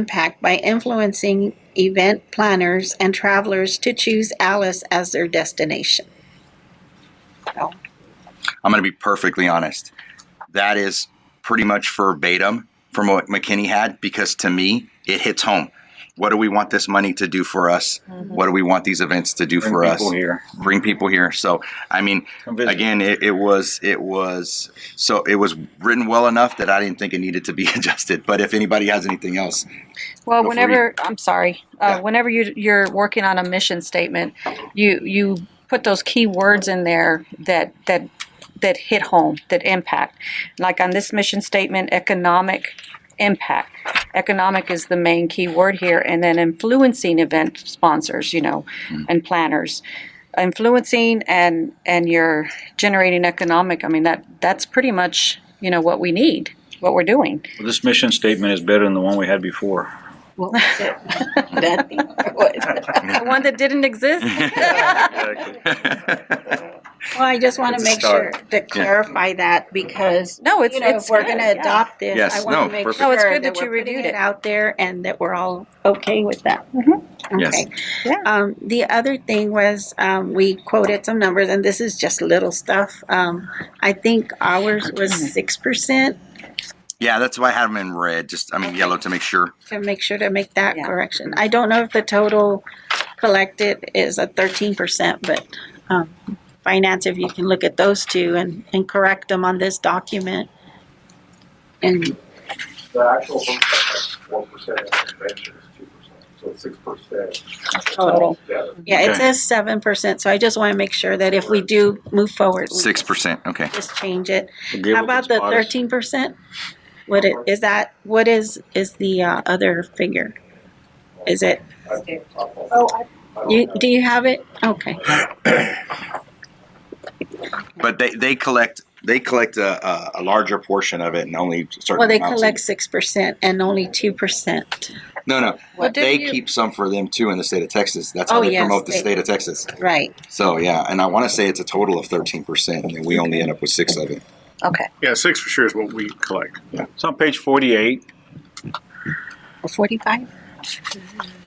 impact by influencing event planners and travelers to choose Alice as their destination. I'm going to be perfectly honest. That is pretty much verbatim from what McKinney had because to me, it hits home. What do we want this money to do for us? Mm-hmm. What do we want these events to do Bring for us? people here. Bring people here. So, I mean, Come visit. again, it, it was it was so it was written well enough that I didn't think it needed to be adjusted. But if anybody has anything else, Go Well, for it. whenever I'm sorry, uh, Yeah. whenever you you're working on a mission statement, you you put those key words in there that that that hit home, that impact. Like on this mission statement, economic impact. Economic is the main key word here, and then influencing event sponsors, you know, and planners. Influencing and and you're generating economic. I mean that that's pretty much you know what we need, what we're doing. Well, this mission statement is better than the one we had before. What was it? That thing? What? The one that didn't exist. Well, I just want It's to a make sure start. to clarify that because, No, it's you know, if it's we're good, going yeah. to adopt this, Yes, I no, want to make perfect. No, sure it's good that that you we're putting reviewed it it. out there and that we're all okay with that. Yes. Okay. Yeah. Um, the other thing was, um, we quoted some numbers and this is just little stuff. Um, I think ours was six percent yeah, that's why I had them in red. Just I mean, Okay. yellow to make sure. to make sure to make that Yeah. correction. I don't know if the total collected is a thirteen percent, but, um, finance, if you can look at those two and, and correct them on this document. And The actual home tax is one percent, and the convention is two percent, so it's six percent. Total. Yeah, Yeah, Okay. it says seven percent, so I just want to make sure that if we do move forward. we Six percent. Okay. Just change it. Gable How about gets the modest. thirteen percent? What it, is that, what is, is the uh, other figure? Is it, Oh, I. you, do you have it? Okay, But they, they collect they collect a, a, a larger portion of it and only certain. well, they amounts. collect six percent and only two percent, No, no. Well, they didn't you- keep some for them too in the state of Texas. That's how Oh, they yes, promote the they- state of Texas. right? So yeah, and I want to say it's a total of thirteen percent, and we only end up with six of it. Okay. Yeah, six for sure is what we collect. It's on page 48. Forty-five?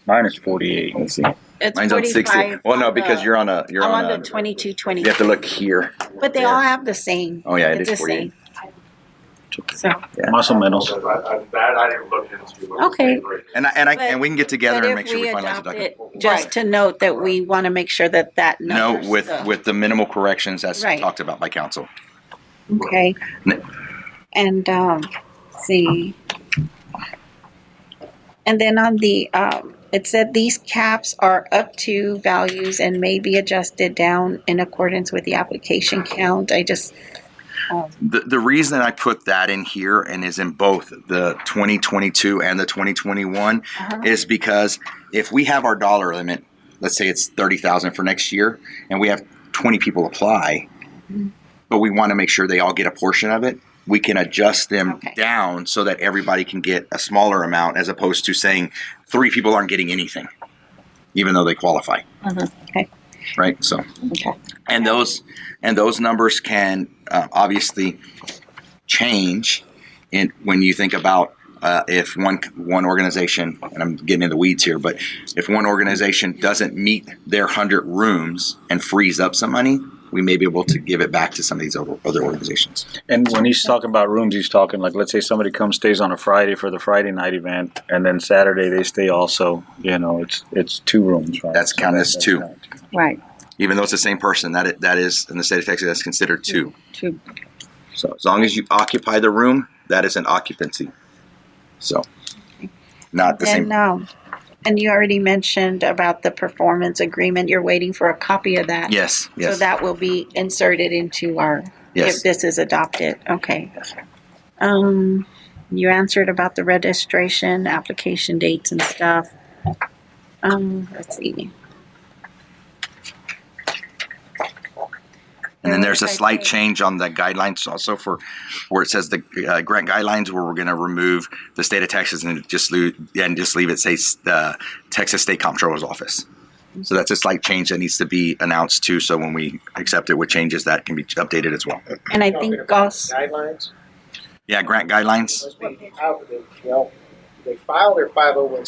Mine is 48. Let's see. It's Mine's on sixty. forty-five. Well, no, because you're on a you're I'm on, on a. the twenty-two, you twenty, have to look here. but they all have the same. Oh yeah, it It's is the forty-eight. same. So, Muscle metals. That I that I didn't look into. when I was Okay. doing it. And I, and I But- and we can get together But and if make sure we finalize the adopt document. it, Just Right. to note that we want to make sure that that No, number. with with the minimal corrections that's Right. talked about by council. Okay. N- And, um, see. And then on the, um, it said these caps are up to values and may be adjusted down in accordance with the application count. I just, um, The, the reason I put that in here and is in both the 2022 and the 2021 Uh-huh. is because if we have our dollar limit, let's say it's 30,000 for next year, and we have 20 people apply, Mm-hmm. but we want to make sure they all get a portion of it. We can adjust them Okay. down so that everybody can get a smaller amount, as opposed to saying three people aren't getting anything, even though they qualify. Uh-huh. Okay. Right. So okay, and those and those numbers can uh, obviously change in when you think about uh, if one one organization and I'm getting in the weeds here, but if one organization doesn't meet their hundred rooms and frees up some money, we may be able to give it back to some of these other, other organizations. And when he's talking about rooms, he's talking like, let's say somebody comes stays on a Friday for the Friday night event, and then Saturday they stay also. You know, it's it's two rooms, right? That's counted as that's two. not- Right. Even though it's the same person, that it, that is in the state of Texas, that's considered two. Two. So as long as you occupy the room, that is an occupancy. So not the same. and, um, and you already mentioned about the performance agreement. You're waiting for a copy of that. Yes. Yes. So that will be inserted into our, yes. if this is adopted, okay. Um, you answered about the registration, application dates and stuff. Um, let's see. And then Or there's a if I slight say- change on the guidelines also for where it says the uh, grant guidelines, where we're going to remove the state of Texas and just leave, and just leave it say the Texas State Comptroller's Office. So that's a slight change that needs to be announced too. So when we accept it with changes, that can be updated as well. And I think Goss, Guidelines, Yeah, grant guidelines. must be out of the jail. they file their five oh one